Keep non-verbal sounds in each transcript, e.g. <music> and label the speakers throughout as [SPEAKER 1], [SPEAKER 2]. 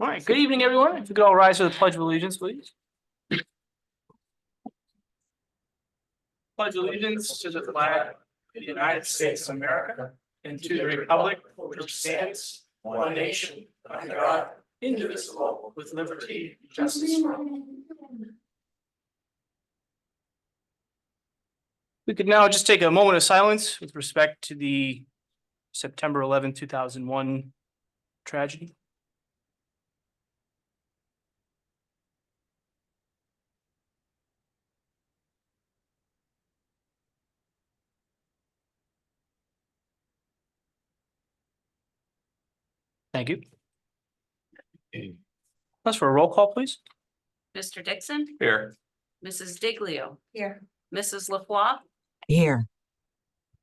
[SPEAKER 1] All right, good evening, everyone. If you could all rise for the Pledge of Allegiance, please. Pledge allegiance to the flag of the United States of America and to the republic for which it stands one nation under God, indivisible, with liberty and justice for all. We could now just take a moment of silence with respect to the September eleventh, two thousand one tragedy. Thank you. That's for a roll call, please.
[SPEAKER 2] Mr. Dixon,
[SPEAKER 3] Here.
[SPEAKER 2] Mrs. Diglio,
[SPEAKER 4] Here.
[SPEAKER 2] Mrs. LaFois,
[SPEAKER 5] Here,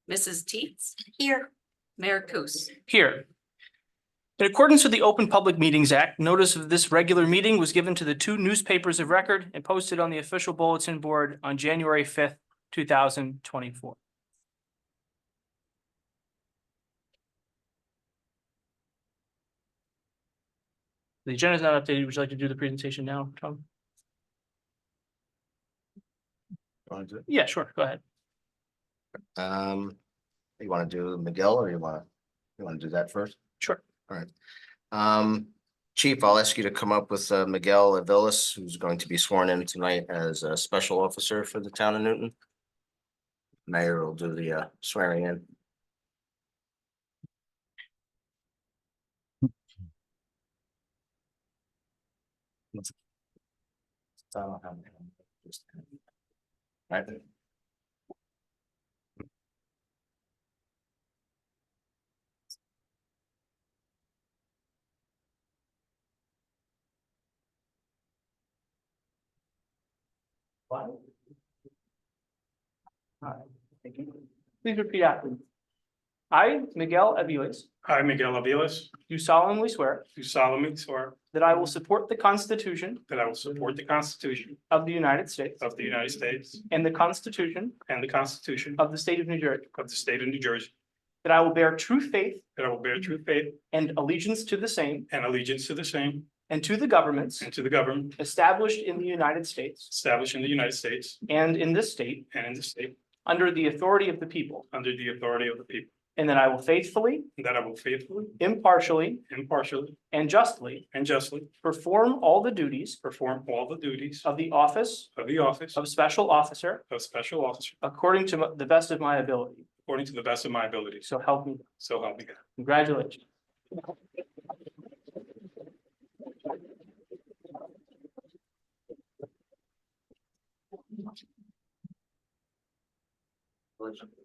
[SPEAKER 2] Mrs. Teets,
[SPEAKER 4] Here.
[SPEAKER 2] Mayor Kus.
[SPEAKER 1] Here. In accordance with the Open Public Meetings Act, notice of this regular meeting was given to the two newspapers of record and posted on the official bulletin board on January fifth, two thousand twenty-four. The agenda is not updated. Would you like to do the presentation now, Tom? Yeah, sure. Go ahead.
[SPEAKER 6] Um, you wanna do Miguel or you wanna, you wanna do that first?
[SPEAKER 1] Sure.
[SPEAKER 6] Alright. Um, chief, I'll ask you to come up with uh, Miguel Avilas, who's going to be sworn in tonight as a special officer for the town of Newton. Mayor will do the uh, swearing in. Right.
[SPEAKER 1] Please repeat after me. I, Miguel Aviles,
[SPEAKER 7] I, Miguel Aviles,
[SPEAKER 1] do solemnly swear
[SPEAKER 7] do solemnly swear
[SPEAKER 1] that I will support the Constitution
[SPEAKER 7] that I will support the Constitution
[SPEAKER 1] of the United States
[SPEAKER 7] of the United States
[SPEAKER 1] and the Constitution
[SPEAKER 7] and the Constitution
[SPEAKER 1] of the State of New Jersey,
[SPEAKER 7] of the State of New Jersey,
[SPEAKER 1] that I will bear true faith
[SPEAKER 7] that I will bear true faith
[SPEAKER 1] and allegiance to the same
[SPEAKER 7] and allegiance to the same
[SPEAKER 1] and to the governments
[SPEAKER 7] and to the government
[SPEAKER 1] established in the United States
[SPEAKER 7] established in the United States
[SPEAKER 1] and in this state
[SPEAKER 7] and in the state
[SPEAKER 1] under the authority of the people,
[SPEAKER 7] under the authority of the people,
[SPEAKER 1] and that I will faithfully,
[SPEAKER 7] and that I will faithfully,
[SPEAKER 1] impartially,
[SPEAKER 7] impartially,
[SPEAKER 1] and justly
[SPEAKER 7] and justly
[SPEAKER 1] perform all the duties
[SPEAKER 7] perform all the duties
[SPEAKER 1] of the office
[SPEAKER 7] of the office
[SPEAKER 1] of special officer
[SPEAKER 7] of special officer
[SPEAKER 1] according to the best of my ability.
[SPEAKER 7] according to the best of my abilities.
[SPEAKER 1] So help me. God.
[SPEAKER 7] So help me God.
[SPEAKER 1] Congratulations.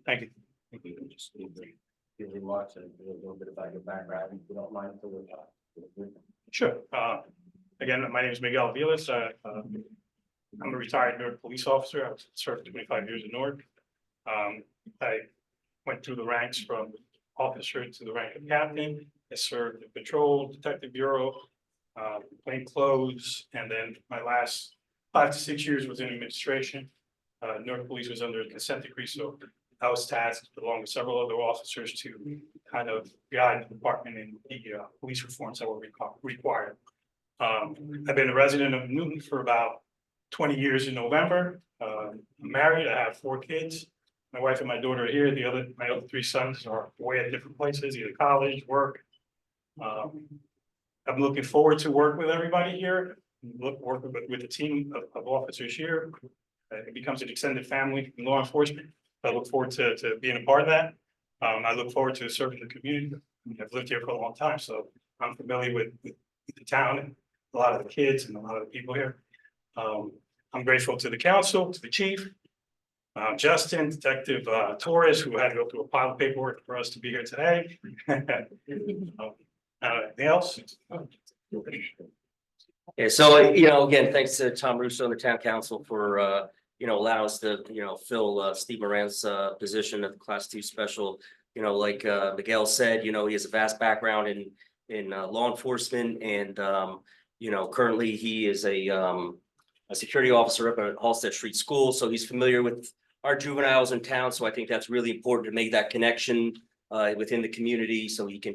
[SPEAKER 7] Thank you.
[SPEAKER 6] think we can just leave the, give the lots and do a little bit about your background, if you don't mind for the.
[SPEAKER 7] Sure. Uh, Again, my name is Miguel Vilas. Uh, uh, I'm a retired Newark police officer. I served twenty-five years in Newark. Um, I went through the ranks from officer to the rank of captain. I served the patrol, detective bureau, uh, plain clothes, and then my last five to six years was in administration. Uh, Newark Police was under a consent decree, so I was tasked along with several other officers to kind of guide the department in the uh, police reforms that were reco- required. Um, I've been a resident of Newton for about twenty years in November. Uh, I'm married, I have four kids. My wife and my daughter are here. The other, my other three sons are away at different places, either college, work. Um, I'm looking forward to work with everybody here, look, working with, with the team of, of officers here. Uh, It becomes an extended family in law enforcement. I look forward to, to being a part of that. Um, I look forward to serving the community. I mean, I've lived here for a long time, so I'm familiar with, with the town and a lot of the kids and a lot of the people here. Um, I'm grateful to the council, to the chief, uh, Justin, Detective, uh, Torres, who had to go through a pile of paperwork for us to be here today. <laughs> Um, Uh, anything else?
[SPEAKER 8] Yeah, so, you know, again, thanks to Tom Russo and the town council for, uh, you know, allowing us to, you know, fill, uh, Steve Moran's, uh, position of class two special. You know, like, uh, Miguel said, you know, he has a vast background in, in, uh, law enforcement and, um, you know, currently he is a, um, a security officer up at Halsted Street School, so he's familiar with our juveniles in town, so I think that's really important to make that connection, uh, within the community, so he can